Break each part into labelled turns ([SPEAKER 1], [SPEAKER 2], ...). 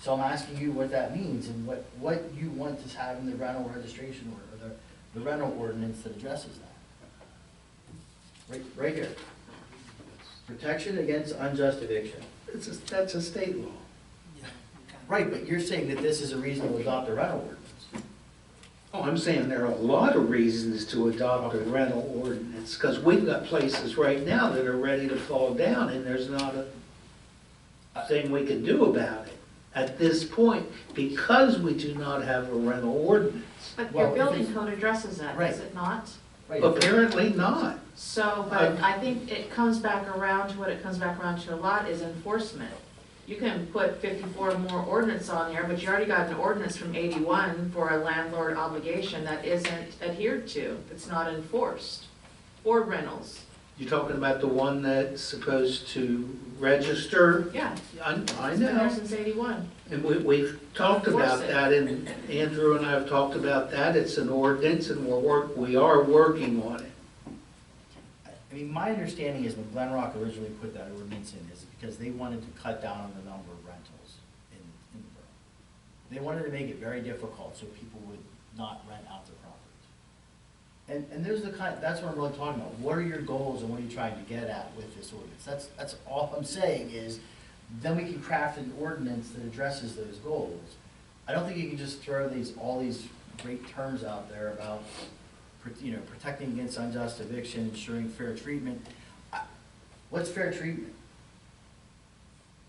[SPEAKER 1] So I'm asking you what that means and what, what you want to have in the rental registration order, or the, the rental ordinance that addresses that. Right, right here. Protection against unjust eviction.
[SPEAKER 2] It's a, that's a state law.
[SPEAKER 1] Right, but you're saying that this is a reason to adopt a rental ordinance.
[SPEAKER 2] Oh, I'm saying there are a lot of reasons to adopt a rental ordinance, because we've got places right now that are ready to fall down, and there's not a thing we can do about it at this point, because we do not have a rental ordinance.
[SPEAKER 3] But
[SPEAKER 1] Well, if
[SPEAKER 3] your building
[SPEAKER 1] it's-
[SPEAKER 3] code addresses that,
[SPEAKER 1] Right.
[SPEAKER 3] does it not?
[SPEAKER 1] Right, if it-
[SPEAKER 2] Apparently not.
[SPEAKER 3] So, but I think it comes back around to what it comes back around to a lot is enforcement. You can put fifty-four more ordinance on there, but you already got an ordinance from eighty-one for a landlord obligation that isn't adhered to, that's not enforced, or rentals,
[SPEAKER 2] You're talking about the one that's supposed to register?
[SPEAKER 3] yeah.
[SPEAKER 2] I, I
[SPEAKER 3] It's been there
[SPEAKER 2] know.
[SPEAKER 3] since eighty-one.
[SPEAKER 2] And we, we've talked about that, and Andrew and I have talked about that, it's an ordinance, and we're work, we are working on it.
[SPEAKER 1] I mean, my understanding is when Glen Rock originally put that ordinance in is because they wanted to cut down on the number of rentals in, in the borough. They wanted to make it very difficult so people would not rent out their properties. And, and there's the kind, that's what I'm really talking about. What are your goals and what are you trying to get at with this ordinance? That's, that's all I'm saying is, then we can craft an ordinance that addresses those goals. I don't think you can just throw these, all these great terms out there about, pr- you know, protecting against unjust eviction, ensuring fair treatment. I- What's fair treatment?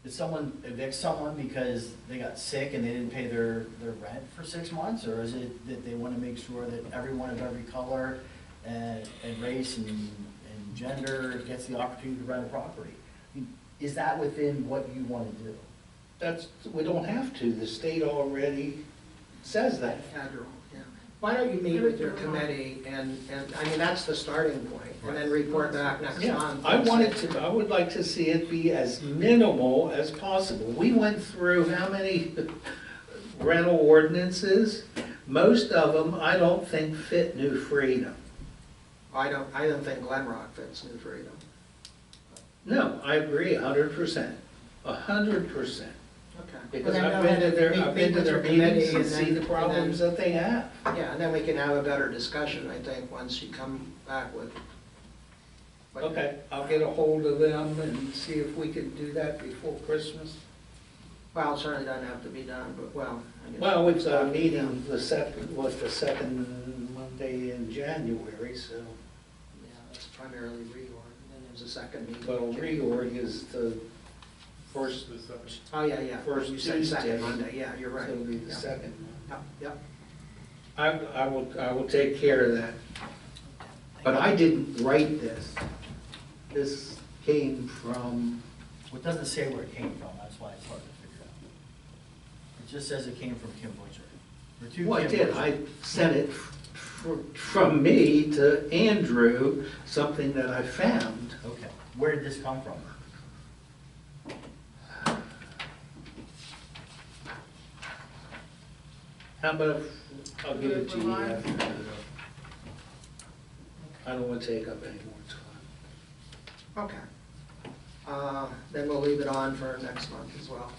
[SPEAKER 1] Did someone evict someone because they got sick and they didn't pay their, their rent for six months? Or is it that they want to make sure that everyone of every color and, and race and, and gender gets the opportunity to rent a property? I mean, Is that within what you want to do?
[SPEAKER 2] That's, we don't have to, the state already says that.
[SPEAKER 4] Federal, yeah. Why don't you meet with your committee and, and, I mean, that's the starting point, and then report back next
[SPEAKER 2] Yeah,
[SPEAKER 4] month.
[SPEAKER 2] I wanted to, I would like to see it be as minimal as possible. We went through how many rental ordinances? Most of them, I don't think fit New Freedom.
[SPEAKER 4] I don't, I don't think Glen Rock fits New Freedom.
[SPEAKER 2] No, I agree a hundred percent, a hundred percent.
[SPEAKER 4] Okay.
[SPEAKER 2] Because
[SPEAKER 4] Well, then
[SPEAKER 2] I've
[SPEAKER 4] go
[SPEAKER 2] been to
[SPEAKER 4] ahead
[SPEAKER 2] their,
[SPEAKER 4] and
[SPEAKER 2] I've
[SPEAKER 4] meet-
[SPEAKER 2] been to
[SPEAKER 4] meet
[SPEAKER 2] their
[SPEAKER 4] with your
[SPEAKER 2] meetings
[SPEAKER 4] committee
[SPEAKER 2] and see
[SPEAKER 4] then-
[SPEAKER 2] the
[SPEAKER 4] and then-
[SPEAKER 2] problems that they have.
[SPEAKER 4] Yeah, and then we can have a better discussion, I think, once you come back with. what-
[SPEAKER 2] Okay, I'll get a hold of them and see if we can do that before Christmas.
[SPEAKER 4] Well, it certainly doesn't have to be done, but, well. I guess-
[SPEAKER 2] Well, uh, we've got a meeting the second, was the second Monday in January, so,
[SPEAKER 4] Yeah, it's primarily reorg, and then there's a second meeting.
[SPEAKER 2] but reorg is the first,
[SPEAKER 4] Oh, yeah, yeah.
[SPEAKER 2] First
[SPEAKER 4] You said
[SPEAKER 2] Tuesday.
[SPEAKER 4] second Monday, yeah, you're
[SPEAKER 2] so
[SPEAKER 4] right.
[SPEAKER 2] it'll be the
[SPEAKER 4] Yeah.
[SPEAKER 2] second.
[SPEAKER 4] Yep, yep.
[SPEAKER 2] I, I will, I will take care of that. But I didn't write this. This came from,
[SPEAKER 1] Well, it doesn't say where it came from, that's why it's hard to figure out. It just says it came from Kim Butcher. Or to
[SPEAKER 2] well, I
[SPEAKER 1] Kim
[SPEAKER 2] did,
[SPEAKER 1] Butcher.
[SPEAKER 2] I sent it fr- from me to Andrew, something that I found.
[SPEAKER 1] Okay, where did this come from?
[SPEAKER 2] How about, if- I'll give it to you after. I don't want to take up any more time.
[SPEAKER 4] Okay. Uh, Then we'll leave it on for next month as well.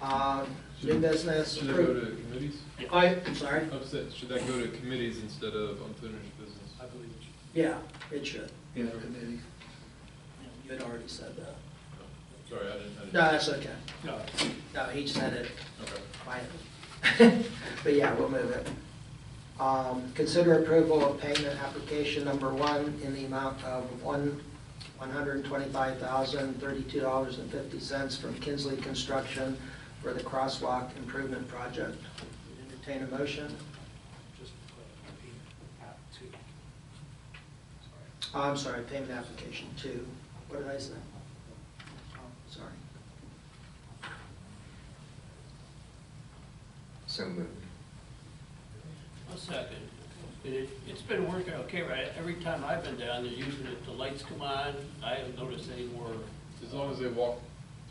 [SPEAKER 4] Uh, New business,
[SPEAKER 5] Should that go to Oh. committees?
[SPEAKER 4] I, I'm sorry?
[SPEAKER 5] Upset, should that go to committees instead of unfinished business? I believe it
[SPEAKER 4] Yeah, it should.
[SPEAKER 2] Yeah, committee.
[SPEAKER 4] You had already said that.
[SPEAKER 5] should. Sorry, I didn't, I didn't.
[SPEAKER 4] No, that's okay. No. No, he said it
[SPEAKER 5] Okay.
[SPEAKER 4] quietly. But yeah, we'll move it. Um, Consider approval of payment application number one in the amount of one, one hundred twenty-five thousand, thirty-two dollars and fifty cents from Kinsley Construction for the crosswalk improvement project. Entertain a motion?
[SPEAKER 6] just uh, repeat out two. Sorry.
[SPEAKER 4] Oh, I'm sorry, payment application two. What did I say? Oh, Sorry.
[SPEAKER 7] So moved.
[SPEAKER 6] A second. It, it's been working okay, right? Every time I've been down, they're using it, the lights come on, I haven't noticed any more.
[SPEAKER 5] As long as they walk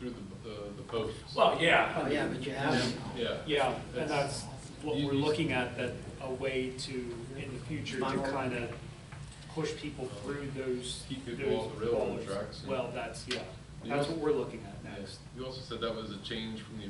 [SPEAKER 5] through the, the, the posts.
[SPEAKER 8] Well, yeah,
[SPEAKER 4] Oh, yeah, but you have,
[SPEAKER 5] Yeah.
[SPEAKER 8] yeah,
[SPEAKER 5] That's-
[SPEAKER 8] and that's what we're looking at, that a way to, in the future, to kind of push people through those.
[SPEAKER 5] Keep people
[SPEAKER 8] those
[SPEAKER 5] off the railroad
[SPEAKER 8] walls.
[SPEAKER 5] tracks and-
[SPEAKER 8] Well, that's, yeah, that's what we're looking at next.
[SPEAKER 5] Yes. You also said that was a change from the